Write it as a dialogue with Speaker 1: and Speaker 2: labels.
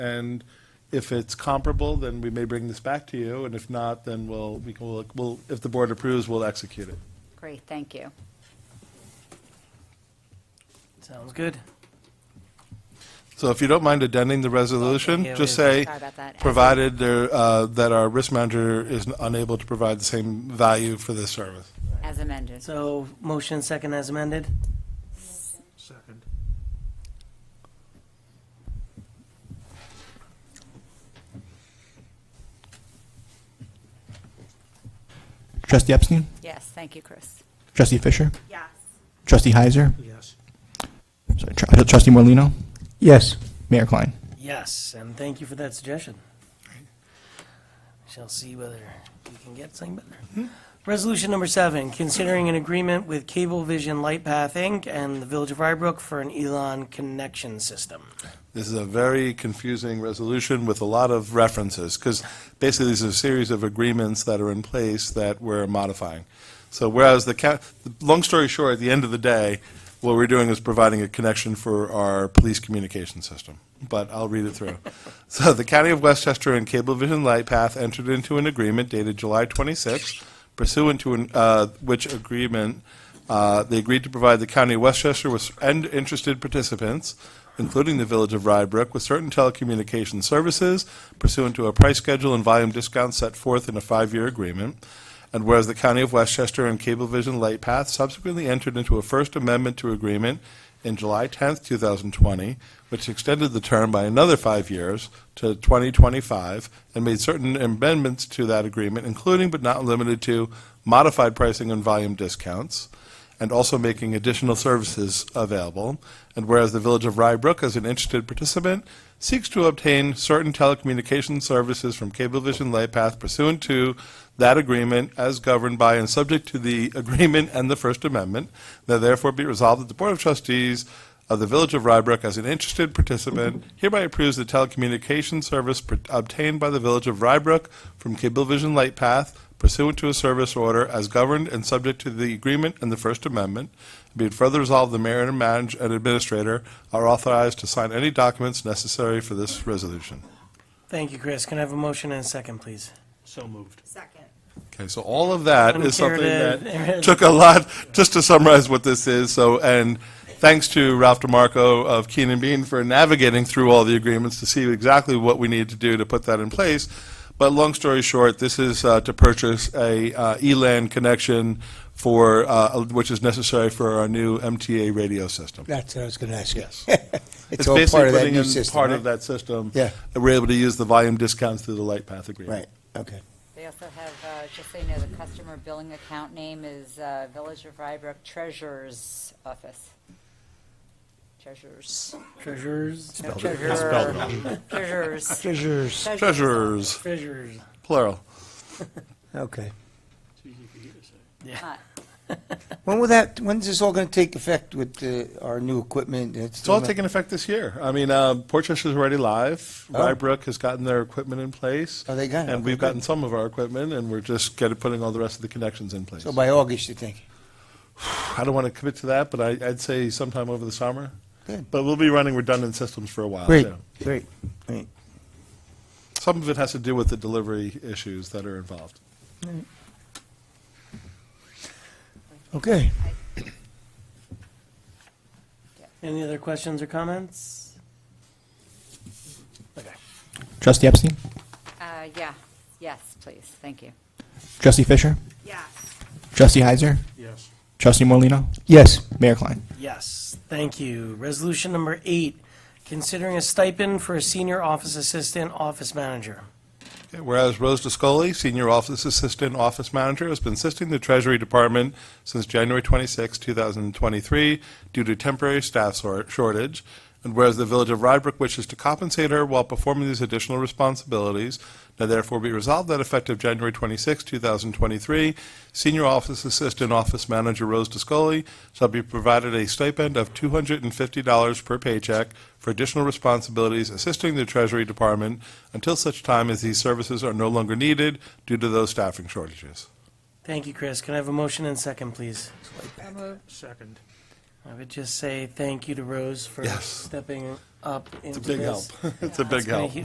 Speaker 1: And if it's comparable, then we may bring this back to you, and if not, then we'll, we can, we'll- we'll, if the board approves, we'll execute it.
Speaker 2: Great, thank you.
Speaker 3: Sounds good.
Speaker 1: So if you don't mind amending the resolution,
Speaker 3: Okay,
Speaker 1: just
Speaker 3: wait a
Speaker 1: say,
Speaker 2: Sorry about that.
Speaker 1: provided there, uh, that our risk manager is unable to provide the same value for this service.
Speaker 2: As amended.
Speaker 3: So motion second as amended?
Speaker 4: Second.
Speaker 5: Trustee Epstein?
Speaker 2: Yes, thank you, Chris.
Speaker 5: Trustee Fisher?
Speaker 6: Yes.
Speaker 5: Trustee Heiser?
Speaker 4: Yes.
Speaker 5: Sorry, tr- uh, Trustee Morlino,
Speaker 7: Yes.
Speaker 5: Mayor Klein?
Speaker 3: Yes, and thank you for that suggestion. Shall see whether we can get something better. Resolution number seven, considering an agreement with Cablevision Lightpath Inc. and the Village of Rybrook for an Elon connection system.
Speaker 1: This is a very confusing resolution with a lot of references, because basically these are a series of agreements that are in place that we're modifying. So whereas the, ca- long story short, at the end of the day, what we're doing is providing a connection for our police communication system, but I'll read it through. So the County of Westchester and Cablevision Lightpath entered into an agreement dated July 26, pursuant to an- uh, which agreement uh, They agreed to provide the county of Westchester with, and interested participants, including the village of Rybrook, with certain telecommunications services pursuant to a price schedule and volume discount set forth in a five-year agreement. And whereas the county of Westchester and Cablevision Lightpath subsequently entered into a First Amendment to agreement in July 10th, 2020, which extended the term by another five years to 2025 and made certain amendments to that agreement, including but not limited to modified pricing and volume discounts, and also making additional services available. And whereas the Village of Rybrook, as an interested participant, seeks to obtain certain telecommunications services from Cablevision Lightpath pursuant to that agreement as governed by and subject to the agreement and the First Amendment, now therefore be resolved that the Board of Trustees of the Village of Rybrook as an interested participant hereby approves the telecommunications service pr- obtained by the Village of Rybrook from Cablevision Lightpath pursuant to a service order as governed and subject to the agreement and the First Amendment. Be it further resolved, the mayor and manager and administrator are authorized to sign any documents necessary for this resolution.
Speaker 3: Thank you, Chris. Can I have a motion and a second, please?
Speaker 4: So moved.
Speaker 6: Second.
Speaker 1: Okay, so all of that is something
Speaker 3: Uncharted.
Speaker 1: that took a lot, just to summarize what this is, so, and thanks to Ralph DeMarco of Keenan Bean for navigating through all the agreements to see exactly what we need to do to put that in place. But long story short, this is uh, to purchase a uh, ELAN connection for, uh, which is necessary for our new MTA radio system.
Speaker 7: That's what I was going to ask you.
Speaker 1: Yes.
Speaker 7: It's all part of
Speaker 1: It's basically
Speaker 7: that new
Speaker 1: putting in
Speaker 7: system,
Speaker 1: part of
Speaker 7: right?
Speaker 1: that system.
Speaker 7: Yeah.
Speaker 1: And we're able to use the volume discounts through the Lightpath agreement.
Speaker 7: Right, okay.
Speaker 2: They also have, uh, just so you know, the customer billing account name is uh, Village of Rybrook Treasurer's Office. Treasurers.
Speaker 3: Treasurers,
Speaker 2: No, treasurer. Treasurers.
Speaker 7: Treasures.
Speaker 1: Treasurers,
Speaker 3: treasurers.
Speaker 1: plural.
Speaker 7: Okay.
Speaker 2: Uh,
Speaker 7: When will that, when's this all going to take effect with uh, our new equipment?
Speaker 1: It's all taking effect this year. I mean, uh, Portchester's already live.
Speaker 7: Oh.
Speaker 1: Rybrook has gotten their equipment in place.
Speaker 7: Oh, they got it.
Speaker 1: And
Speaker 7: Okay,
Speaker 1: we've
Speaker 7: good.
Speaker 1: gotten some of our equipment, and we're just getting, putting all the rest of the connections in place.
Speaker 7: So by August, you think?
Speaker 1: I don't want to commit to that, but I, I'd say sometime over the summer.
Speaker 7: Good.
Speaker 1: But we'll be running redundant systems for a while,
Speaker 7: Great,
Speaker 1: too.
Speaker 7: great, great.
Speaker 1: Some of it has to do with the delivery issues that are involved.
Speaker 7: Okay.
Speaker 3: Any other questions or comments?
Speaker 5: Trustee Epstein?
Speaker 2: uh, Yeah, yes, please, thank you.
Speaker 5: Trustee Fisher?
Speaker 6: Yes.
Speaker 5: Trustee Heiser?
Speaker 4: Yes.
Speaker 5: Trustee Morlino,
Speaker 7: Yes.
Speaker 5: Mayor Klein?
Speaker 3: Yes, thank you. Resolution number eight, considering a stipend for a senior office assistant, office manager.
Speaker 1: Okay, Whereas Rose DeScoli, Senior Office Assistant Office Manager, has been assisting the Treasury Department since January 26, 2023, due to temporary staff sor- shortage. And whereas the Village of Rybrook wishes to compensate her while performing these additional responsibilities, now therefore be resolved that effective January 26, 2023, Senior Office Assistant Office Manager Rose DeScoli shall be provided a stipend of $250 per paycheck for additional responsibilities assisting the Treasury Department until such time as these services are no longer needed due to those staffing shortages.
Speaker 3: Thank you, Chris. Can I have a motion and second, please?
Speaker 4: Second.
Speaker 3: I would just say thank you to Rose for
Speaker 1: Yes.
Speaker 3: stepping up into
Speaker 1: It's a
Speaker 3: this.
Speaker 1: big help. It's a big
Speaker 3: It's been a
Speaker 1: help.
Speaker 3: hu-